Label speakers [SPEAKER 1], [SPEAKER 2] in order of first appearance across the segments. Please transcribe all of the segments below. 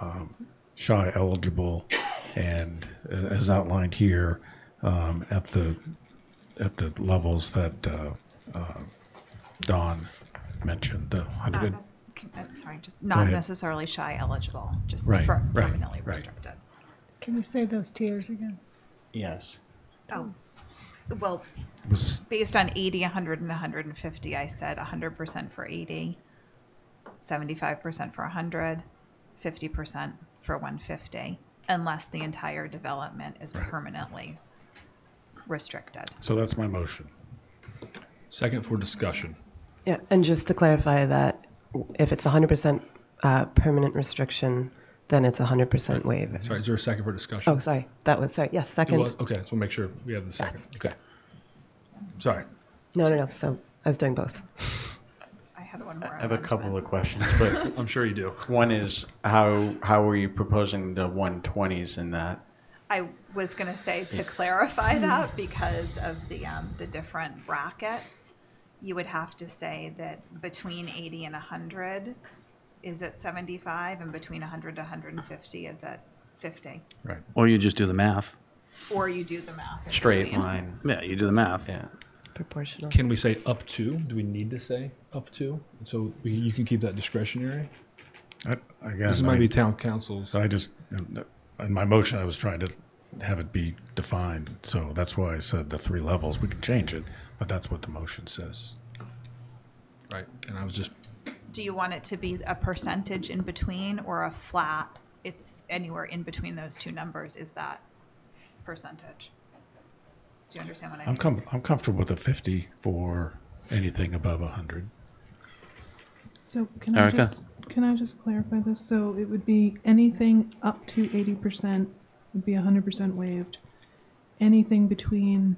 [SPEAKER 1] um, SHI eligible and uh, as outlined here, um, at the, at the levels that, uh, uh, Don mentioned, the
[SPEAKER 2] Not
[SPEAKER 1] hundred,
[SPEAKER 2] nec- can- uh, Sorry, just not
[SPEAKER 1] ahead.
[SPEAKER 2] necessarily shy eligible, just
[SPEAKER 1] Right,
[SPEAKER 2] for
[SPEAKER 1] right,
[SPEAKER 2] permanently
[SPEAKER 1] right.
[SPEAKER 2] restricted.
[SPEAKER 3] Can you say those tiers again?
[SPEAKER 4] Yes.
[SPEAKER 2] Oh, well,
[SPEAKER 1] was,
[SPEAKER 2] based on 80, 100, and 150, I said 100% for 80, 75% for 100, 50% for 150, unless the entire development is permanently restricted.
[SPEAKER 1] so that's my motion.
[SPEAKER 5] Second for discussion.
[SPEAKER 6] Yeah, and just to clarify that if it's 100% uh, permanent restriction, then it's 100% waiver.
[SPEAKER 5] Sorry, is there a second for discussion?
[SPEAKER 6] Oh, sorry, that was, sorry, yes,
[SPEAKER 5] It was-
[SPEAKER 6] second.
[SPEAKER 5] Okay, so we'll make sure we have the second.
[SPEAKER 6] Oh, Yes.
[SPEAKER 5] Okay. Sorry.
[SPEAKER 6] No, no, no, so I was doing both.
[SPEAKER 2] I had one more.
[SPEAKER 4] I have a
[SPEAKER 2] on that,
[SPEAKER 4] couple
[SPEAKER 2] but-
[SPEAKER 4] of questions, but
[SPEAKER 5] I'm sure you do.
[SPEAKER 4] one is how, how are you proposing the 120s in that?
[SPEAKER 2] I was going to say to clarify that because of the, um, the different brackets, you would have to say that between 80 and 100 is at 75 and between 100 to 150 is at 50.
[SPEAKER 1] Right.
[SPEAKER 7] Or you just do the math.
[SPEAKER 2] Or you do the math. in
[SPEAKER 4] Straight
[SPEAKER 2] between.
[SPEAKER 4] line,
[SPEAKER 7] Yeah, you do the math.
[SPEAKER 4] yeah.
[SPEAKER 6] Proportional.
[SPEAKER 5] Can we say up to? Do we need to say up to? So we, you can keep that discretionary?
[SPEAKER 1] I, I
[SPEAKER 5] This
[SPEAKER 1] guess,
[SPEAKER 5] might be
[SPEAKER 1] I,
[SPEAKER 5] town council's.
[SPEAKER 1] so I just, in my motion, I was trying to have it be defined, so that's why I said the three levels, we can change it, but that's what the motion says.
[SPEAKER 5] Right. And I was just,
[SPEAKER 2] Do you want it to be a percentage in between or a flat? It's anywhere in between those two numbers is that percentage. Do you understand what I mean?
[SPEAKER 1] I'm com, I'm comfortable with a fifty for anything above a hundred.
[SPEAKER 3] So can I
[SPEAKER 7] Erica?
[SPEAKER 3] just, can I just clarify this? So it would be anything up to eighty percent would be hundred percent waived. Anything between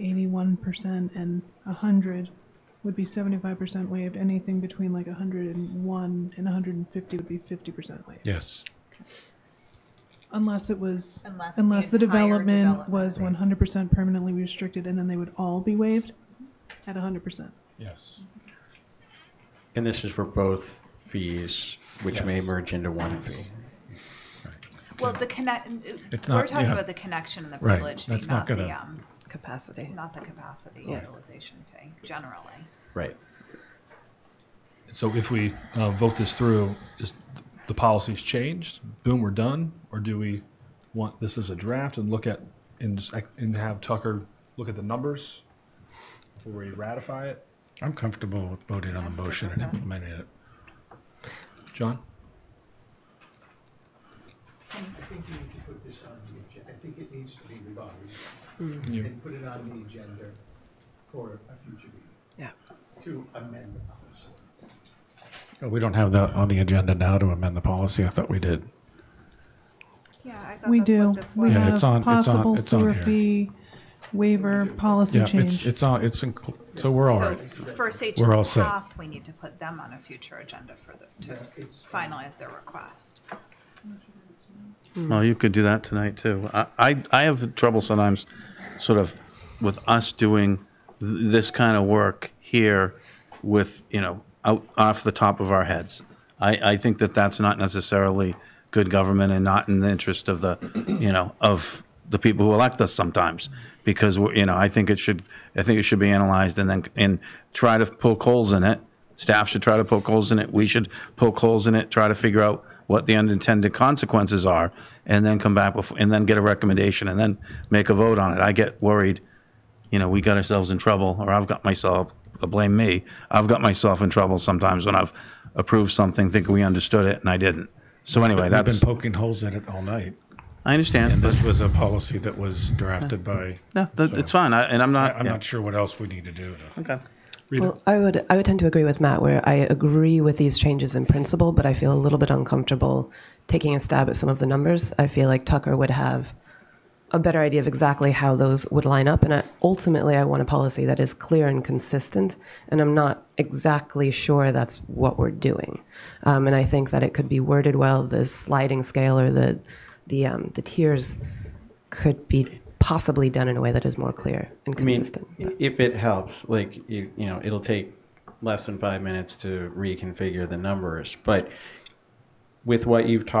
[SPEAKER 3] eighty-one percent and hundred would be seventy-five percent waived. Anything between like hundred and one and hundred and fifty would be fifty percent waived.
[SPEAKER 1] Yes,
[SPEAKER 3] Unless it was,
[SPEAKER 2] Unless the
[SPEAKER 3] unless the
[SPEAKER 2] entire
[SPEAKER 3] development
[SPEAKER 2] development.
[SPEAKER 3] was one hundred percent permanently restricted and then they would all be waived at hundred percent.
[SPEAKER 5] yes.
[SPEAKER 4] And this is for both fees, which may
[SPEAKER 5] Yes.
[SPEAKER 4] merge into one fee.
[SPEAKER 2] Well, the connect,
[SPEAKER 1] It's
[SPEAKER 2] we're
[SPEAKER 1] not-
[SPEAKER 2] talking
[SPEAKER 1] yeah.
[SPEAKER 2] about the connection and the
[SPEAKER 1] Right,
[SPEAKER 2] privilege fee,
[SPEAKER 1] that's
[SPEAKER 2] not
[SPEAKER 1] not
[SPEAKER 2] the,
[SPEAKER 1] gonna-
[SPEAKER 2] um,
[SPEAKER 6] Capacity.
[SPEAKER 2] not the capacity
[SPEAKER 6] Yeah.
[SPEAKER 2] utilization fee, generally.
[SPEAKER 4] Right.
[SPEAKER 5] So if we uh, vote this through, is the policy's changed? Boom, we're done? Or do we want this as a draft and look at, and, just act- and have Tucker look at the numbers before we ratify it?
[SPEAKER 1] I'm comfortable with voting on the motion and implementing it.
[SPEAKER 5] John?
[SPEAKER 8] I think you need to put this on the agenda. I think it needs to be revised
[SPEAKER 5] Can you-
[SPEAKER 8] and put it on the agenda for a future meeting
[SPEAKER 6] Yeah.
[SPEAKER 8] to amend the policy.
[SPEAKER 1] Oh, We don't have that on the agenda now to amend the policy. I thought we did.
[SPEAKER 2] Yeah, I
[SPEAKER 3] We do. We
[SPEAKER 1] was. Yeah,
[SPEAKER 3] have
[SPEAKER 1] it's on- it's on-
[SPEAKER 3] possible
[SPEAKER 1] it's on
[SPEAKER 3] sewer
[SPEAKER 1] here.
[SPEAKER 3] fee waiver policy
[SPEAKER 1] Yeah, it's,
[SPEAKER 3] change.
[SPEAKER 1] it's all, it's, inclu- so we're all
[SPEAKER 2] So
[SPEAKER 1] right.
[SPEAKER 2] for
[SPEAKER 1] We're all
[SPEAKER 2] Sachem's
[SPEAKER 1] set.
[SPEAKER 2] Path, we need to put them on a future agenda for the, to finalize their request.
[SPEAKER 7] Mm-hmm. Well, you could do that tonight too. I, I, I have trouble sometimes sort of with us doing th- this kind of work here with, you know, out, off the top of our heads. I, I think that that's not necessarily good government and not in the interest of the, you know, of the people who elect us sometimes. Because, we're you know, I think it should, I think it should be analyzed and then, and try to poke holes in it. Staff should try to poke holes in it. We should poke holes in it, try to figure out what the unintended consequences are, and then come back before, and then get a recommendation and then make a vote on it. I get worried, you know, we got ourselves in trouble, or I've got myself, uh, blame me, I've got myself in trouble sometimes when I've approved something, thinking we understood it, and I didn't. So anyway,
[SPEAKER 1] I've been
[SPEAKER 7] that's,
[SPEAKER 1] poking holes in it all night.
[SPEAKER 7] I understand,
[SPEAKER 1] And
[SPEAKER 7] but
[SPEAKER 1] this was a policy that was drafted by,
[SPEAKER 7] no, that- it's fine, I- and I'm
[SPEAKER 1] I-
[SPEAKER 7] not.
[SPEAKER 1] I'm
[SPEAKER 7] yeah.
[SPEAKER 1] not sure what else we need to do. to-
[SPEAKER 7] Okay.
[SPEAKER 6] Well, I would, I would tend to agree with Matt, where I agree with these changes in principle, but I feel a little bit uncomfortable taking a stab at some of the numbers. I feel like Tucker would have a better idea of exactly how those would line up, and I, ultimately, I want a policy that is clear and consistent, and I'm not exactly sure that's what we're doing. Um, and I think that it could be worded well, the sliding scale or the, the, um, the tiers could be possibly done in a way that is more clear and
[SPEAKER 4] I mean,
[SPEAKER 6] consistent.
[SPEAKER 4] if it helps, like, you, you know, it'll take less than five minutes to reconfigure the numbers, but with what you've talked